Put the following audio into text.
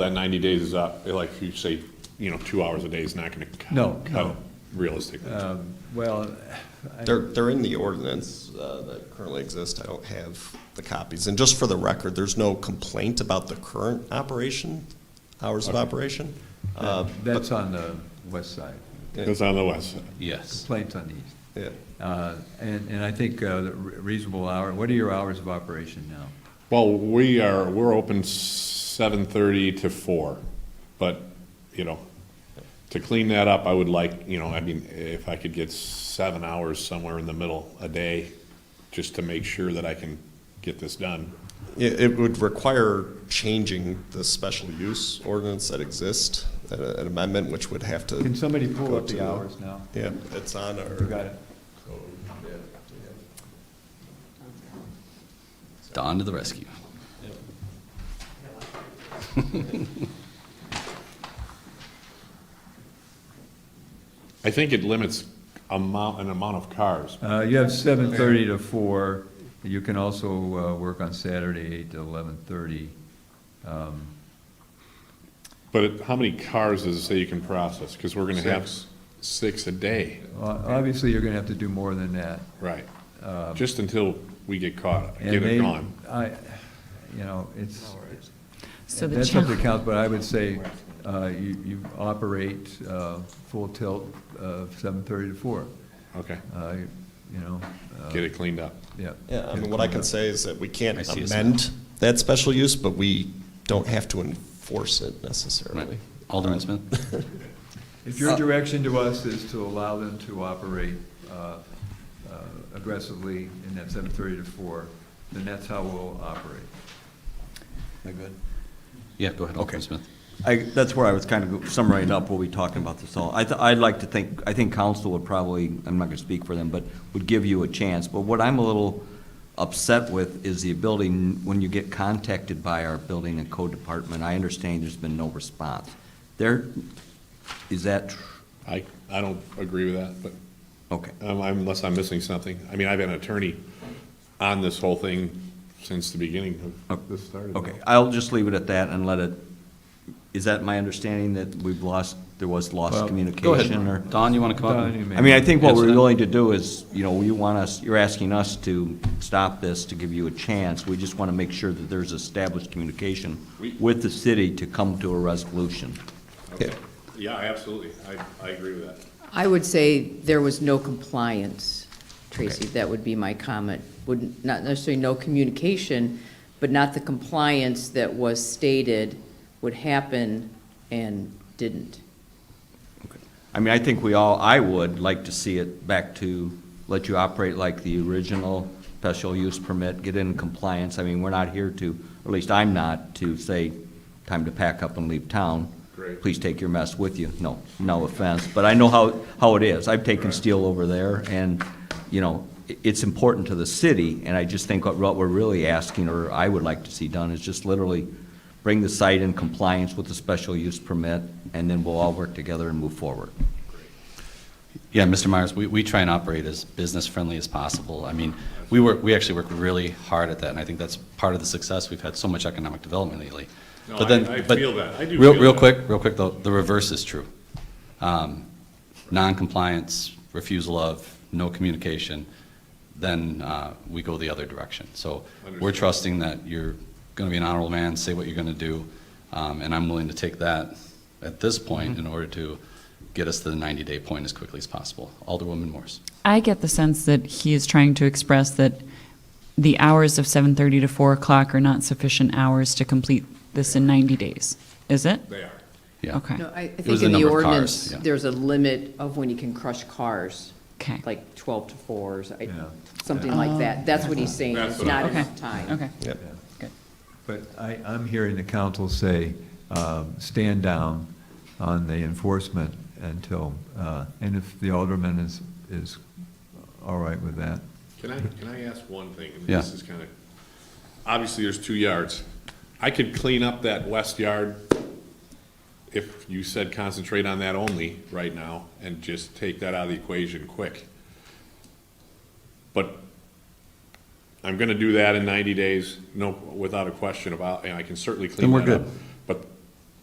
that ninety days is up, like you say, you know, two hours a day is not gonna cut. No, cut no. Uh, it Realistically. Well, I- They're, they're in the ordinance uh, that currently exist. I don't have the copies. And just for the record, there's no complaint about the current operation, hours of operation. Uh, but- that's on the west side, It's on the west side. Yes. complaints on the east. yeah. Uh, And, and I think uh, the re- reasonable hour, what are your hours of operation now? Well, we are, we're open seven thirty to four, but, you know, to clean that up, I would like, you know, I mean, if I could get seven hours somewhere in the middle a day, just to make sure that I can get this done. It, it would require changing the special use ordinance that exists, an an amendment which would have to. Can somebody pull go up to the hours now? Yeah, it's on You our, got it? Don to the rescue. I think it limits amount, an amount of cars. Uh, You have seven thirty to four, you can also uh, work on Saturday, eight to eleven thirty. But it- how many cars does it say you can process? Because we're gonna have Six. six a day, Obviously, you're gonna have to do more than that. right? Just until we get caught, Um, And get they- it gone. I, you know, it's, So the that's up to challenge- council, but I would say uh, you, you operate uh, full tilt of seven thirty to four, Okay, uh, you know, uh, get it cleaned up. yeah. yeah, I mean, what I can say is that we can't I see it's- amend that special use, but we don't have to enforce it necessarily. Alderman Smith? If uh, your direction to us is to allow them to operate uh, uh, aggressively in that seven thirty to four, then that's how we'll operate. Yeah, go ahead, Alderman Smith. I, that's where I was kind of summarizing up what we talked about this all. I, th- I'd like to think, I think council would probably, I'm not gonna speak for them, but would give you a chance. But what I'm a little upset with is the ability, n- when you get contacted by our building and code department, I understand there's been no response. There, is that, tr- I, I don't agree with that, but okay, um, I'm- unless I'm missing something. I mean, I've been an attorney on this whole thing since the beginning Oh, of this started. okay. I'll just leave it at that and let it, is that my understanding that we've lost, there was lost Well, Go ahead. communication or? Don, you want to come up? Don, you may- I mean, I think what Yes, we're that- willing to do is, you know, you want us, you're asking us to stop this, to give you a chance. We just want to make sure that there's established communication with the city to come to a resolution. Okay. Yeah, absolutely. I, I agree with that. I would say there was no compliance, Tracy, that would be my comment. Would, not necessarily no communication, but not the compliance that was stated would happen and didn't. I mean, I think we all, I would like to see it back to let you operate like the original special use permit, get in compliance. I mean, we're not here to, or at least I'm not, to say, time to pack up and leave town. Great. Please take your mess with you. No, no offense, but I know how, how it is. I've taken steel over there and, you know, i- it's important to the city. And I just think what, what we're really asking, or I would like to see done, is just literally bring the site in compliance with the special use permit, and then we'll all work together and move forward. Yeah, Mr. Myers, we, we try and operate as business-friendly as possible. I mean, we work, we actually work really hard at that, and I think that's part of the success. We've had so much economic development lately. No, But then- I- I but feel that. I do Real, feel real that. quick, real quick, though, the reverse is true. Um, Non-compliance, refusal of, no communication, then uh, we go the other direction. So we're Understood. trusting that you're going to be an honorable man, say what you're going to do, um, and I'm willing to take that at this point in order to get us to the 90-day point as quickly as possible. Alderwoman Morse. I get the sense that he is trying to express that the hours of 7:30 to 4 o'clock are not sufficient hours to complete this in 90 days. Is it? They are. Yeah. Okay. No, I, I was think the in the number of cars, ordinance, yeah. there's a limit of when you can crush cars. Okay. Like twelve to fours, I- Yeah. something like that. That's what he's saying, That's it's what I- not Okay. enough time. Okay. Yeah. But I, I'm hearing the council say, um, stand down on the enforcement until, uh, and if the alderman is, is all right with that. Can I, can I ask one thing? And Yeah. This is kind of, obviously, there's two yards. I could clean up that west yard if you said concentrate on that only right now and just take that out of the equation quick. But I'm going to do that in 90 days, no, without a question about, and I can certainly clean Then we're that up. good.